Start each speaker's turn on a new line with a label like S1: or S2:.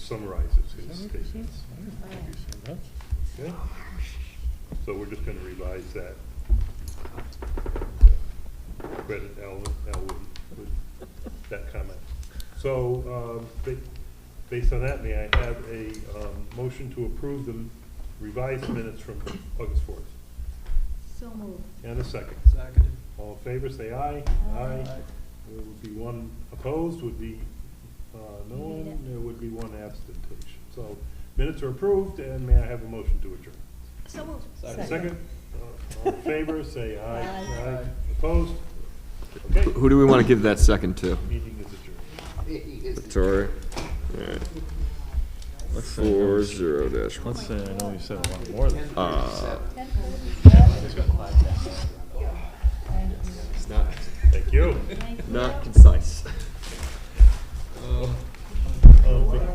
S1: summarizes his statements.
S2: Huh?
S1: Okay? So we're just gonna revise that. Credit Al, Alwyn with that comment. So, um, ba- based on that, may I have a, um, motion to approve the revised minutes from August fourth?
S3: So moved.
S1: And a second.
S4: Seconded.
S1: All in favor, say aye.
S3: Aye.
S1: There would be one opposed, would be, uh, no
S3: Need
S1: one,
S3: it.
S1: there would be one abstention. So minutes are approved, and may I have a motion to adjourn?
S3: So moved.
S4: Second.
S1: Second, uh, all in favor, say aye.
S3: Aye.
S1: Opposed? Okay,
S5: Who do we want to give that second to?
S1: meeting is adjourned.
S5: Sorry. Alright,
S2: Let's say I know-
S5: four zero dash one.
S2: Let's say I know you said a lot more than.
S5: Uh,
S1: Thank you.
S5: not concise.
S1: Oh,
S4: Uh,